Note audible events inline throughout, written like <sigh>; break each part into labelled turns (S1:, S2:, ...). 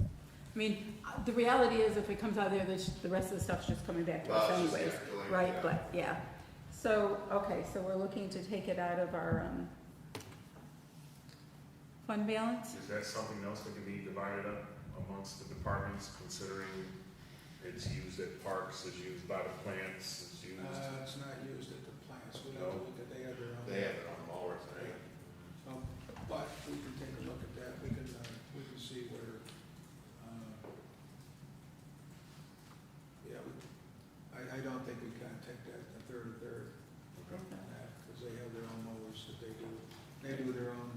S1: I mean, uh, the reality is if it comes out of there, this, the rest of the stuff's just coming back to us
S2: Well, it's just
S1: anyways,
S2: gonna go in,
S1: right,
S2: yeah.
S1: but, yeah. So, okay, so we're looking to take it out of our, um, fund balance?
S3: Is that something else that can be divided up amongst the departments, considering it's used at parks, it's used by the plants, it's used?
S4: Uh, it's not used at the plants, we'd have to look at, they have their own.
S2: They have it on all works, right?
S4: Um, But we can take a look at that, we can, uh, we can see where, uh, yeah, we, I, I don't think we can take that, the third, third
S3: Okay.
S4: on that, because they have their own mowers that they do, they do their own,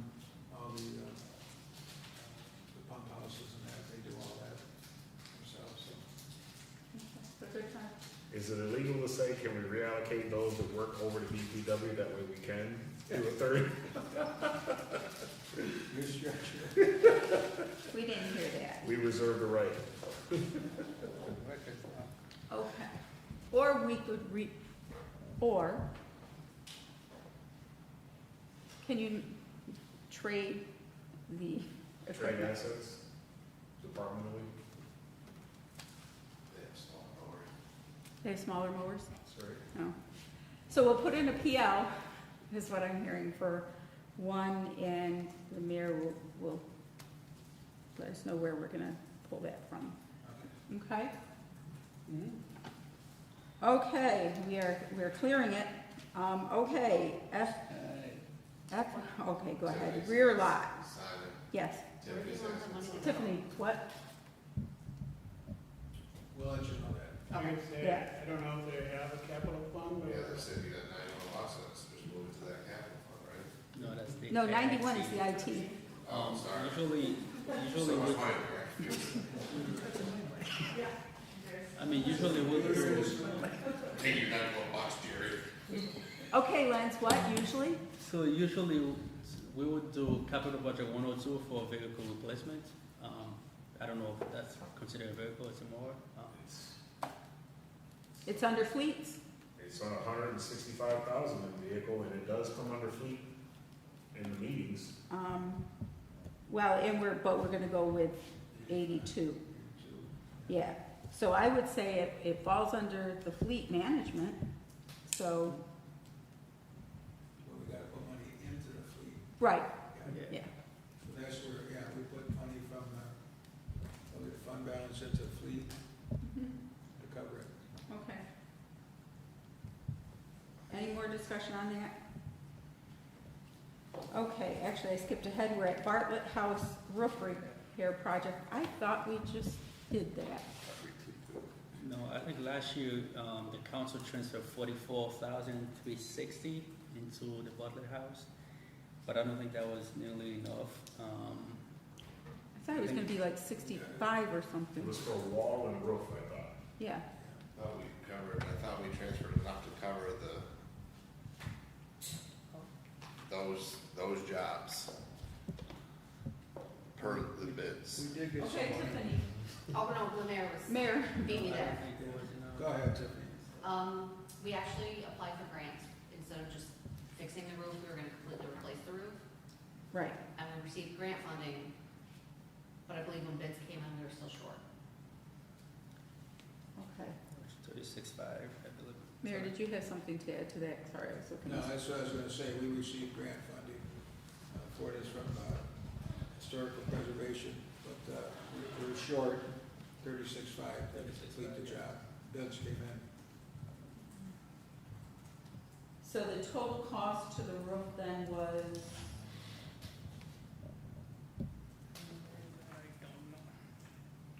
S4: all the, uh, the pump houses and that, they do all that themselves, so. <laughs>
S1: That's a good time.
S3: Is it illegal to say, can we reallocate those that work over to DPW, that way we can do a third?
S4: Your structure.
S1: We didn't hear that,
S3: We reserve the right.
S1: okay. Or we could re, or can you trade the
S3: Trade
S1: equipment?
S3: assets, departmentally,
S2: That's all in order.
S1: They have smaller mowers?
S3: sorry.
S1: No. So we'll put in a PL, is what I'm hearing for one, and the mayor will, will let us know where we're gonna pull that from. Okay? Okay, we are, we're clearing it. Um, okay, F, F, okay, go ahead. Rear lot,
S2: Simon,
S1: yes.
S2: Tiffany says it's on-
S1: Tiffany, what?
S4: We'll let you know that.
S5: I would say,
S1: Yeah.
S5: I don't know if they have a capital fund,
S2: Yeah, they
S5: but
S2: said you got ninety-one losses, just move it to that capital fund, right?
S6: No, that's the.
S1: No, ninety-one is the IT.
S2: Oh, I'm sorry.
S6: Usually, usually,
S2: So much
S6: with-
S2: money, we're confused.
S6: I mean, usually what we're,
S2: Take your ninety-one bucks, Jerry.
S1: Okay, Lance, what usually?
S6: so usually we would do capital budget one oh two for vehicle replacement. Um, I don't know if that's considered a vehicle, it's a mower. Um,
S3: It's-
S1: It's under fleets?
S3: It's on hundred and sixty-five thousand in vehicle, and it does come under fleet in the meetings.
S1: Um, well, and we're, but we're gonna go with eighty-two, yeah. So I would say it, it falls under the fleet management, so,
S4: Well, we gotta put money into the fleet.
S1: right,
S4: Yeah.
S1: yeah,
S4: So That's where, yeah, we put money from the, from the fund balance into the fleet to cover it.
S1: Mm-hmm, okay. Any more discussion on that? Okay, actually, I skipped ahead, we're at Bartlett House Roof Repair Project, I thought we just did that.
S6: No, I think last year, um, the council transferred forty-four thousand three sixty into the Butler House, but I don't think that was nearly enough. Um,
S1: I thought it was gonna be like sixty-five or
S3: It
S1: something,
S3: was for wall and roof, I thought.
S1: yeah,
S2: Thought we covered, I thought we transferred enough to cover the, those, those jobs per the bids.
S4: We did get some
S7: Okay,
S4: money.
S7: Tiffany. Oh, no, Lemaire was
S1: Mayor,
S7: beating me
S6: I don't
S7: there.
S6: think there was enough.
S4: Go ahead, Tiffany.
S7: Um, we actually applied for grants. Instead of just fixing the roof, we were gonna completely replace the roof.
S1: right,
S7: And we received grant funding, but I believe when bids came in, we were still short.
S1: okay.
S6: Thirty-six five, I believe.
S1: Mayor, did you have something to add to that? Sorry, I was looking.
S4: No, that's what I was gonna say, we received grant funding uh, for this from uh, historical preservation, but uh, we- we're short thirty-six-five to complete the job. Bids came in.
S1: So the total cost to the roof then was,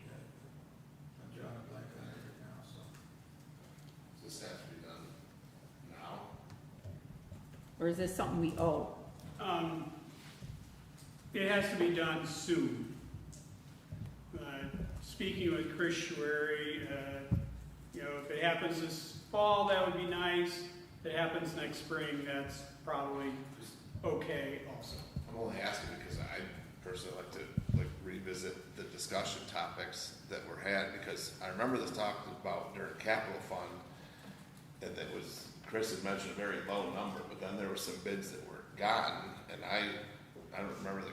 S4: I'm drawing a blank on it right now, so.
S2: Does this have to be done now?
S1: or is this something we owe?
S5: um, it has to be done soon. Uh, Speaking with Chris Schwery, uh, you know, if it happens this fall, that would be nice. If it happens next spring, that's probably okay also.
S2: I'm only asking because I personally like to like revisit the discussion topics that were had, because I remember this talk about during capital fund, and that was, Chris had mentioned a very low number, but then there were some bids that were gotten, and I, I don't remember the